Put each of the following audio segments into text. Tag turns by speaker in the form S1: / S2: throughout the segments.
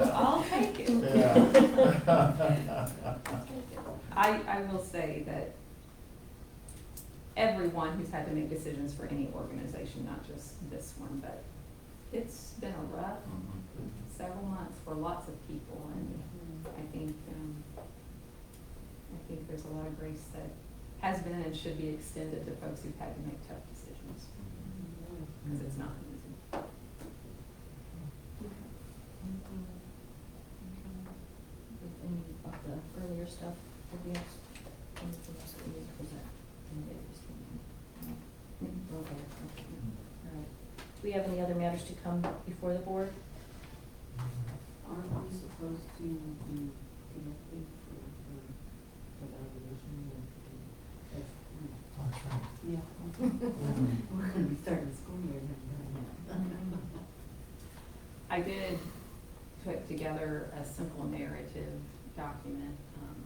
S1: will say that everyone who's had to make decisions for any organization, not just this one, but it's been a rough several months for lots of people, and I think, um, I think there's a lot of grace that has been and should be extended to folks who've had to make tough decisions, because it's not easy.
S2: With any of the earlier stuff, if we have anything else that we need to present, and get this to you. Okay, okay, all right. Do we have any other matters to come before the board?
S3: Aren't we supposed to be connected for, for, for the evolution and, and, if we- yeah. We're gonna be starting school year now,
S1: I did put together a simple narrative document, um,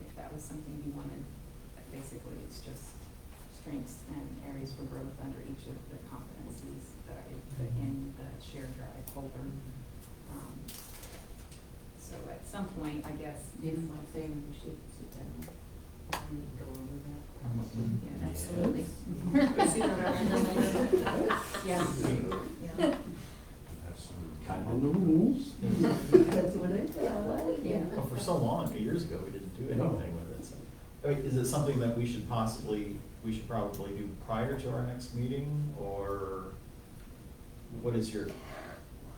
S1: if that was something you wanted. But Basically, it's just strengths and areas for growth under each of the competencies that I put in the shared drive folder. Um, So at some point, I guess,
S3: If
S1: if,
S3: I'm saying we should sit down and go over that.
S4: Mhm.
S1: yeah,
S2: Absolutely.
S3: See what I
S2: Yeah, yeah.
S4: Kind of the rules.
S3: mean? That's what I thought.
S2: Yeah.
S5: Well, Oh, for so long, a few years ago, we didn't do anything with it. so. I mean, Is it something that we should possibly, we should probably do prior to our next meeting, or what is your,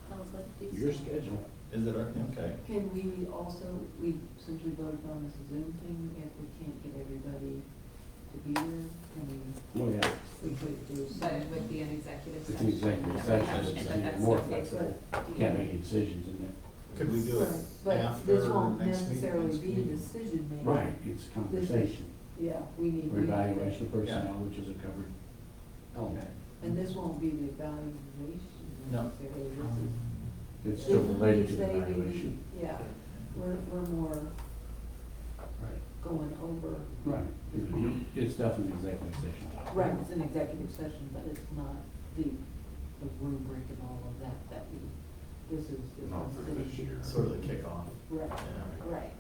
S2: Sounds like a
S4: Your
S2: decent-
S4: schedule.
S5: is it, our- okay,
S3: Can we also, we, since we voted on this Zoom thing, if we can't get everybody to be here, can
S4: Oh, yeah.
S3: we, we could do
S1: but
S3: some?
S1: it would be an executive
S4: It's
S1: session.
S4: an executive
S1: that we
S4: session,
S1: have,
S4: it's
S1: but
S4: even
S1: that's
S4: more
S1: okay.
S4: flexible. Can't make any decisions in
S5: could we do
S3: Right,
S5: it
S3: But
S5: after
S3: this won't
S5: next meeting?
S3: necessarily
S5: next
S3: be
S5: meeting?
S3: decision making.
S4: there. Right, it's conversation.
S3: Yeah, we need. we
S4: Or
S3: need-
S4: evaluation of personnel, which is a covered element.
S3: And this won't be the evaluation
S5: No. Um,
S3: necessarily, this is.
S4: It's still
S3: Didn't we
S4: related to
S3: say we-
S4: evaluation.
S3: Yeah, we're, we're more
S4: Right.
S3: going over,
S4: Right. It's- It's definitely executive session.
S3: right, it's an executive session, but it's not the, the rubric and all of that, that we, this is.
S6: Not for this
S3: decision.
S6: year.
S5: Sort of the kickoff,
S3: Right,
S5: yeah.
S3: right.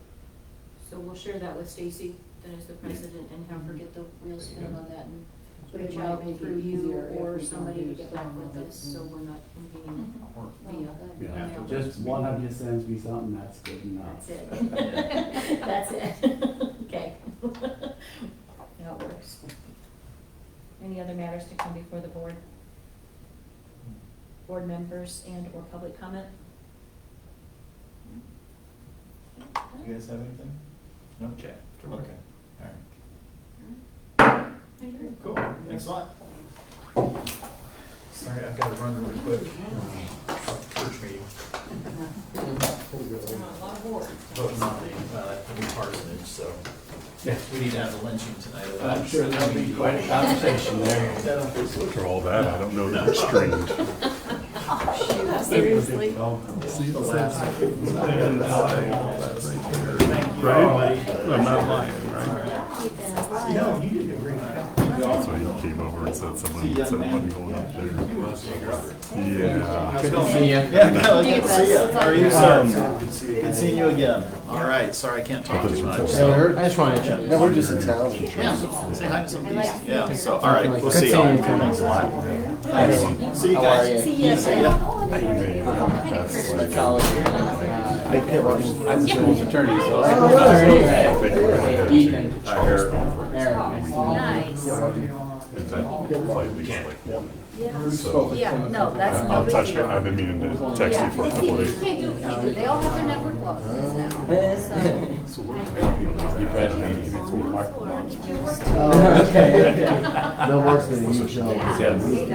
S2: So we'll share that with Stacy, then as the president, and have her get the real spin on that and
S3: But it
S2: reach
S3: might
S2: out
S3: make it
S2: through you
S3: easier if we
S2: or
S3: can
S2: somebody
S3: do
S2: to get back
S3: some
S2: with
S3: of it Oh,
S2: us, so
S3: and-
S2: we're not convening
S5: Or-
S2: via
S4: Yeah,
S2: email.
S5: After
S4: just one of you sends me something, that's good enough.
S2: That's it. That's it. Okay. That works. Any other matters to come before the board? Board members and or public comment?
S5: You guys have anything? No? Okay. Okay, all right. Cool, thanks a lot. Sorry, I've got to run really quick. Church meeting,
S1: We're on a lot of boards.
S5: voting on the, uh, the new parsonage, so
S4: Yeah.
S5: we need to have a lynching tonight.
S4: I'm sure there'll be quite a conversation there.
S5: That'll be sweet.
S6: For all that, I don't know that it's strange.
S2: Seriously?
S5: The last- Thank you,
S6: Right?
S5: everybody.
S6: I'm not lying, right?
S5: No, you did a great job.
S6: So he came over and said someone, said one going up there. Yeah.
S4: See ya.
S5: Yeah, no, good to see you.
S2: Thank you.
S5: How are you, sir? Good seeing you again. All right, sorry, I can't talk too much. so-
S7: That's fine. No, we're just in town.
S5: Yeah, say hi to some of these.
S2: like
S5: Yeah,
S2: your-
S5: so, all right, we'll
S7: Good
S5: see you.
S7: seeing you.
S5: Thanks a lot. Thanks. See you
S7: How are
S5: guys.
S7: you?
S2: Yes.
S6: That's like-
S7: I can't watch.
S4: I'm the civil attorney, so. I-
S7: Oh, yeah.
S4: Hey, Ethan.
S6: I heard.
S2: Nice.
S6: Is that slightly like one? So, uh,
S2: Yeah, no, that's no
S6: I'll
S2: big
S6: touch
S2: deal.
S6: it. I've been meaning to text you for a couple of days.
S2: Can't do, can't do- they all have their network losses now.
S6: So we're gonna be-
S4: Your president, Mark Lawrence.
S7: Oh, okay. No worse than you, Joe.
S6: Yeah.
S7: Super nice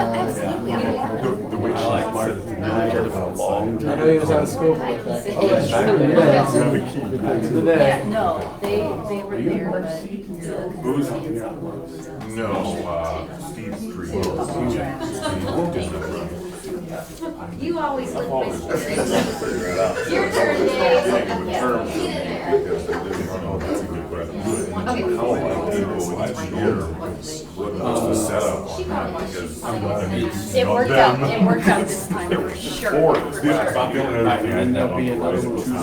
S7: guy.
S2: absolutely.
S6: The the way she said that, you really cared about law.
S7: I know he was out of school for a second.
S2: Oh, that's
S7: Yeah.
S6: true. You have a key.
S2: Yeah, no, they, they were there, but.
S6: Who's No, uh, Steve Street. uh, Your
S2: You always look
S6: turn, uh, Dave.
S2: It worked out, it worked out this time, for sure.
S6: Or, this is about the only other thing I have on the horizon.